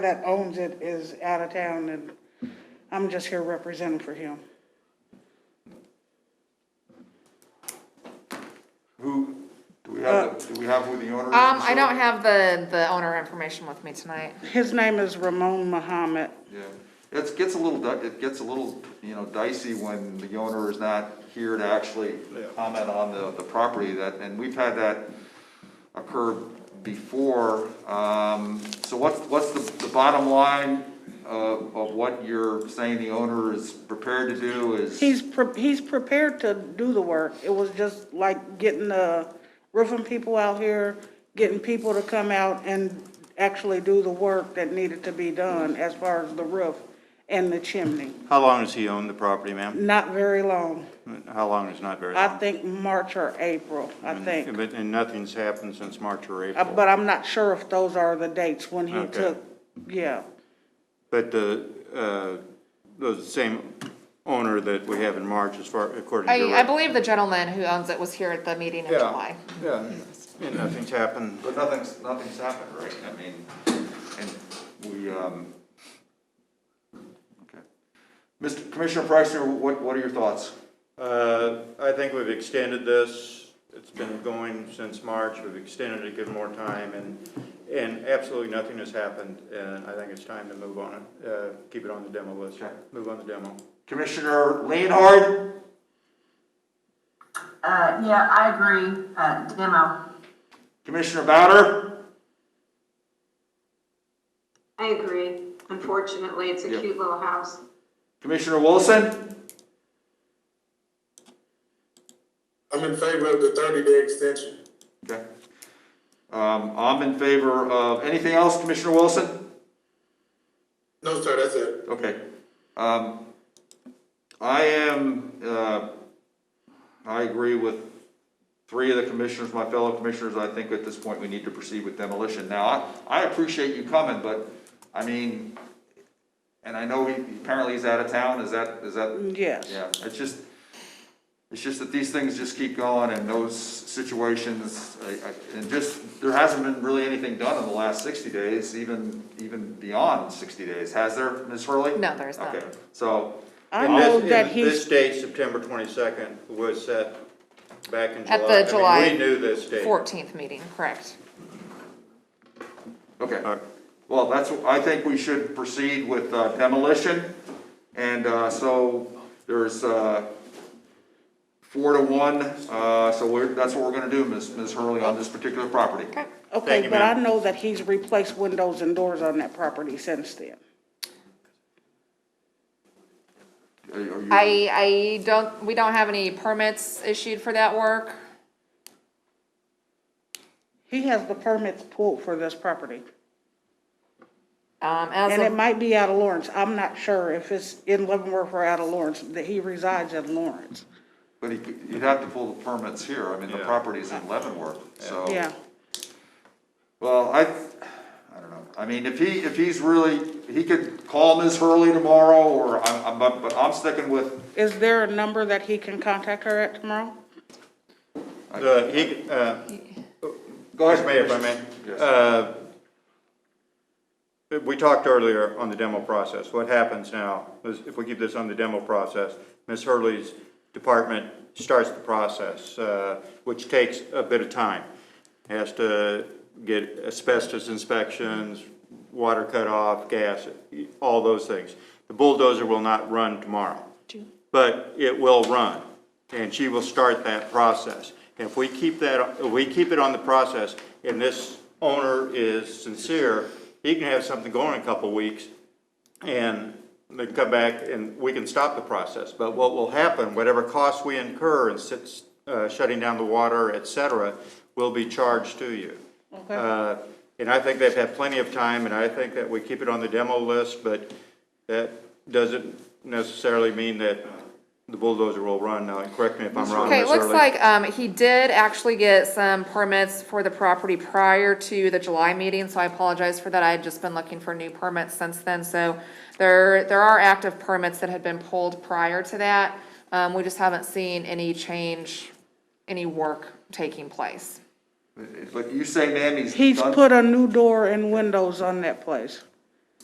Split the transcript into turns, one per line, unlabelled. that owns it is out of town, and I'm just here representing for him.
Who, do we have, the- do we have who the owner is?
Um, I don't have the, the owner information with me tonight.
His name is Ramon Muhammad.
Yeah, it gets a little, di- it gets a little, you know, dicey when the owner is not here to actually comment on the, the property that, and we've had that occur before. Um, so what's, what's the, the bottom line of, of what you're saying the owner is prepared to do is?
He's, pre- he's prepared to do the work. It was just like getting the roofing people out here, getting people to come out and actually do the work that needed to be done as far as the roof and the chimney.
How long has he owned the property, ma'am?
Not very long.
How long is not very
I
long?
think March or April, I think.
But, and nothing's happened since March or
Uh,
April?
But I'm not sure if those are the dates when he
Okay.
took, yeah.
But the, uh, the same owner that we have in March as far, according to.
I, I
Rick.
believe the gentleman who owns it was here at the meeting in
Yeah,
July.
Yeah, and nothing's happened.
But nothing's, nothing's happened, right? I mean, and we, um, okay. Mr. Commissioner Preisner, what, what are your thoughts?
Uh, I think we've extended this, it's been going since March, we've extended it, given more time, and, and absolutely nothing has happened, and I think it's time to move on it, uh, keep it on the demo list,
Okay.
move on the demo.
Commissioner Leonhard?
Uh, yeah, I agree, uh, demo.
Commissioner Bowder?
I agree. Unfortunately, it's a
Yeah.
cute little house.
Commissioner Wilson?
I'm in favor of the thirty day extension.
Okay. Um, I'm in favor of, anything else, Commissioner Wilson?
No, sir, that's it.
Okay. Um, I am, uh, I agree with three of the commissioners, my fellow commissioners, I think at this point we need to proceed with demolition. Now, I, I appreciate you coming, but, I mean, and I know he, apparently he's out of town, is that, is that?
Yes.
Yeah, it's just, it's just that these things just keep going and those situations, I- I- and just, there hasn't been really anything done in the last sixty days, even, even beyond sixty days, has there, Ms. Hurley?
No, there is not.
Okay, so,
I
And
know
this-
that
and
he's,
This date, September twenty-second, was set back in July.
At the
I mean,
July
We knew this date.
Fourteenth meeting, correct.
okay,
Uh,
well, that's, I think we should proceed with uh, demolition, and, uh, so, there's, uh, four to one, uh, so we're, that's what we're gonna do, Ms., Ms. Hurley, on this particular property.
Okay.
okay,
Thank you,
but I
ma'am.
know that he's replaced windows and doors on that property since then.
Are you- are you-
I, I don't, we don't have any permits issued for that work.
He has the permits pulled for this property.
Um, as
And it
of,
might be out of Lawrence. I'm not sure if it's in Leavenworth or out of Lawrence, that he resides in Lawrence.
But he could- you'd have to pull the permits here, I mean, the
Yeah.
property's in Leavenworth, so.
Yeah.
Well, I, I don't know, I mean, if he, if he's really, he could call Ms. Hurley tomorrow, or I'm, I'm, but I'm sticking with,
Is there a number that he can contact her at tomorrow?
The, he, uh,
go ahead.
Mr. Mayor, if I may.
Yes,
Uh, We talked earlier on the demo process. What happens now is if we keep this on the demo process, Ms. Hurley's department starts the process, uh, which takes a bit of time. Has to get asbestos inspections, water cutoff, gas, all those things. The bulldozer will not run tomorrow, but it will run, and she will start that process. And if we keep that, if we keep it on the process, and this owner is sincere, he can have something going in a couple weeks, and they can come back and we can stop the process. But what will happen, whatever costs we incur in sit- uh, shutting down the water, et cetera, will be charged to you.
Okay.
Uh, And I think they've had plenty of time, and I think that we keep it on the demo list, but that doesn't necessarily mean that the bulldozer will run. Now, correct me if I'm wrong,
okay, it
Ms.
looks
Hurley.
like, um, he did actually get some permits for the property prior to the July meeting, so I apologize for that. I had just been looking for new permits since then, so there, there are active permits that had been pulled prior to that. Um, we just haven't seen any change, any work taking place.
but you say, ma'am, he's
He's
done-
Uh,
put a new door and windows on that place.